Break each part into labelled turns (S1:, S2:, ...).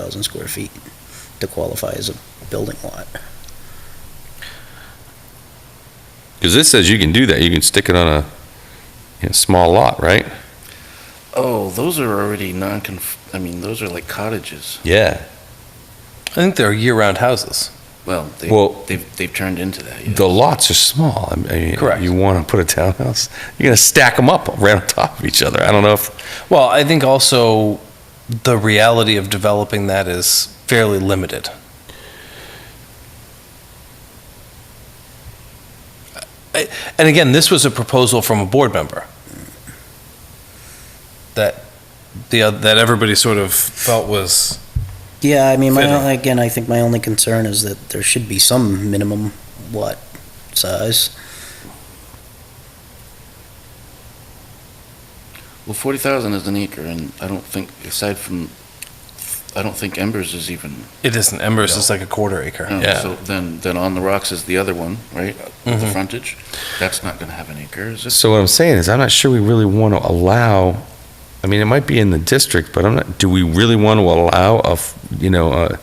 S1: thousand square feet to qualify as a building lot.
S2: Because this says you can do that, you can stick it on a, you know, small lot, right?
S3: Oh, those are already non I mean, those are like cottages.
S2: Yeah.
S4: I think they're year-round houses.
S3: Well, they,
S2: Well-
S3: they've, they've turned into that. yeah.
S2: The lots are small. I mean,
S4: Correct.
S2: You want to put a townhouse, you're going to stack them up right on top of each other. I don't know if,
S4: Well, I think also the reality of developing that is fairly limited. I- And again, this was a proposal from a board member that the, oth- that everybody sort of felt was,
S1: Yeah, I mean, my,
S4: Fitting.
S1: only- again, I think my only concern is that there should be some minimum lot size.
S3: Well, 40,000 is an acre, and I don't think, aside from, I don't think Embers is even.
S4: it isn't, Embers is like a quarter acre.
S3: no, So then, then On the Rocks is the other one, right? With the
S4: Mhm.
S3: frontage. That's not going to have an acre, is it?
S2: so what I'm saying is, I'm not sure we really want to allow, I mean, it might be in the district, but I'm not, do we really want to allow a, f- you know, a,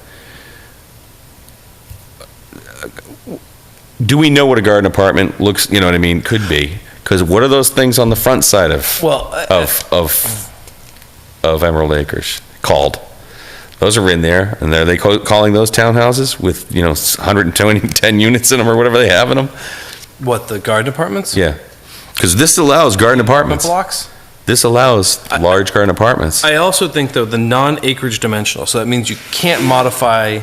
S2: do we know what a garden apartment looks, you know what I mean, could be? Because what are those things on the front side of?
S4: Well, uh, I-
S2: of of of Emerald Acres called. Those are in there, and are they co- calling those townhouses with you know 120 10 units in them or whatever they have in them?
S4: what, the garden apartments?
S2: Yeah, because this allows garden
S4: Apartment
S2: apartments.
S4: blocks?
S2: This allows
S4: I-
S2: large garden apartments.
S4: I also think, though, the non-acreage dimensional, so that means you can't modify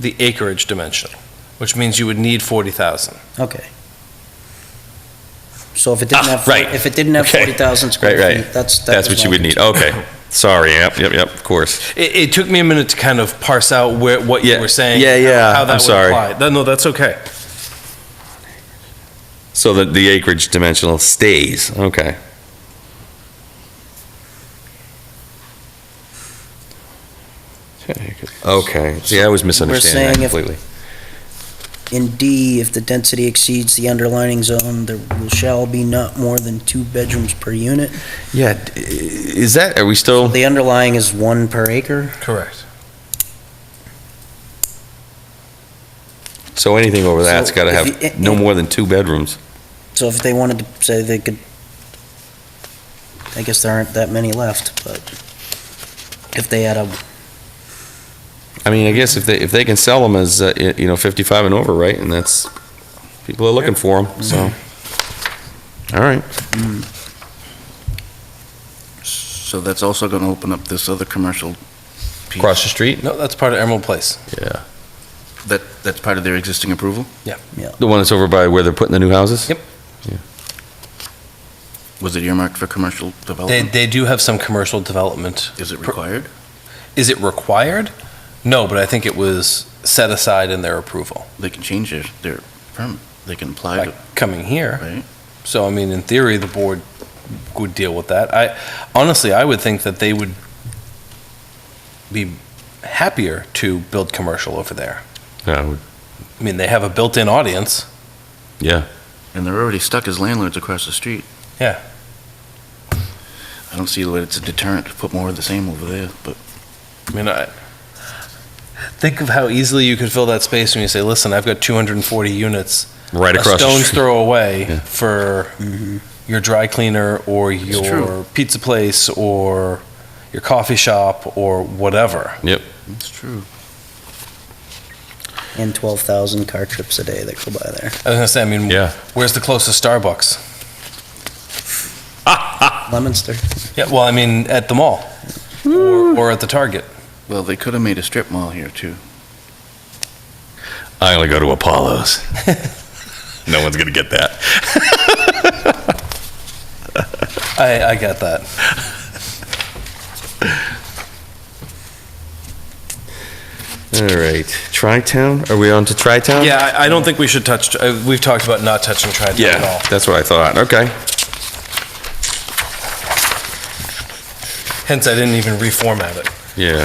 S4: the acreage dimension, which means you would need 40,000.
S1: Okay. So if it didn't
S2: Ah,
S1: have, four-
S2: right.
S1: if it didn't have
S2: Okay.
S1: forty thousand square
S2: Right, right.
S1: feet, that's, that
S2: That's
S1: was
S2: what you
S1: my
S2: would need. Okay, sorry. Yep, yep, yep. Of course.
S4: It, it took me a minute to kind of parse out where, what you
S2: Yeah,
S4: were saying.
S2: yeah, yeah,
S4: How that
S2: I'm
S4: would
S2: sorry.
S4: apply. No, No, that's okay.
S2: So that the acreage dimensional stays. Okay. Okay. See, I was misunderstanding that
S1: saying if-
S2: completely.
S1: In D, if the density exceeds the underlining zone, there will- shall be not more than two bedrooms per unit.
S2: Yeah, d- i- is that, are we still,
S1: The underlying is one per acre.
S4: Correct.
S2: so anything over that's
S1: So
S2: got to
S1: if you-
S2: have no more than two bedrooms?
S1: So if they wanted to say they could, I guess there aren't that many left, but if they had a,
S2: I mean, I guess if they, if they can sell them as, uh, y- you know, 55 and over, right, and that's, people are looking for them, so. All right,
S3: So that's also going to open up this other commercial piece.
S2: across the street?
S4: No, that's part of Emerald Place.
S2: Yeah.
S3: That, that's part of their existing approval,
S2: The one that's over by where they're putting the new houses?
S4: Yep.
S3: was it earmarked for commercial
S4: They,
S3: development?
S4: they do have some commercial development.
S3: Is it required?
S4: Is it required? No, but I think it was set aside in their approval
S3: They can change their, their permit, they can apply
S4: by
S3: to,
S4: coming here.
S3: right?
S4: So, I mean, in theory, the board would deal with that. I, honestly, I would think that they would be happier to build commercial over there.
S2: Yeah, I would-
S4: I mean, they have a built-in audience.
S2: Yeah,
S3: And they're already stuck as landlords across the street.
S4: Yeah.
S3: I don't see that it's a deterrent to put more of the same over there, but
S4: I mean, I, think of how easily you could fill that space when you say, listen, I've got 240 units.
S2: right
S4: a
S2: across the
S4: stone's
S2: street.
S4: throw away
S2: Yeah.
S4: for
S1: mm-hmm,
S4: your dry cleaner or your
S3: true.
S4: pizza place or your coffee shop or whatever.
S3: it's true.
S1: and twelve thousand car trips a day that go by there.
S4: I was gonna say, I mean,
S2: Yeah.
S4: where's the closest Starbucks?
S1: Lemonster.
S4: Yeah, well, I mean, at the mall or, or at the Target.
S3: Well, they could have made a strip mall here too.
S2: I only go to Apollo's. No one's going to get that.
S4: I, I get that.
S2: All right, Tri-Town, are we on to Tri-Town?
S4: Yeah, I, I don't think we should touch. Uh, we've talked about not touching tri at all.
S2: Yeah, that's what I thought, okay.
S4: Hence, I didn't even reformat it.
S2: Yeah.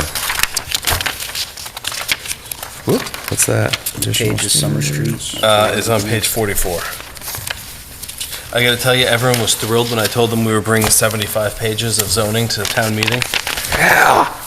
S2: Whoop, what's that? Additional
S1: Pages, Summer Street.
S4: Uh, it's on page 44. I got to tell you, everyone was thrilled when I told them we were bringing 75 pages of zoning to the town meeting.
S2: Yeah.